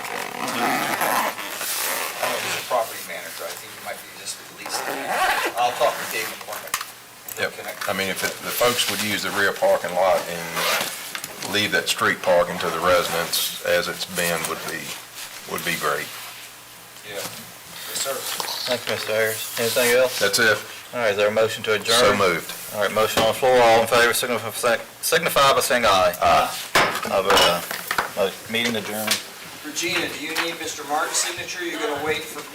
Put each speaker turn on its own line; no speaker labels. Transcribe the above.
I mean, if it- the folks would use the rear parking lot and leave that street parking to the residents as it's been would be, would be great.
Yes, sir.
Thank you, Mr. Ayers. Anything else?
That's it.
All right, is there a motion to adjourn?
So moved.
All right, motion on the floor, all in favor, signify by saying- signify by saying aye. Aye. Of, uh, mo- meeting adjourned.
Regina, do you need Mr. Martin's signature? You're gonna wait for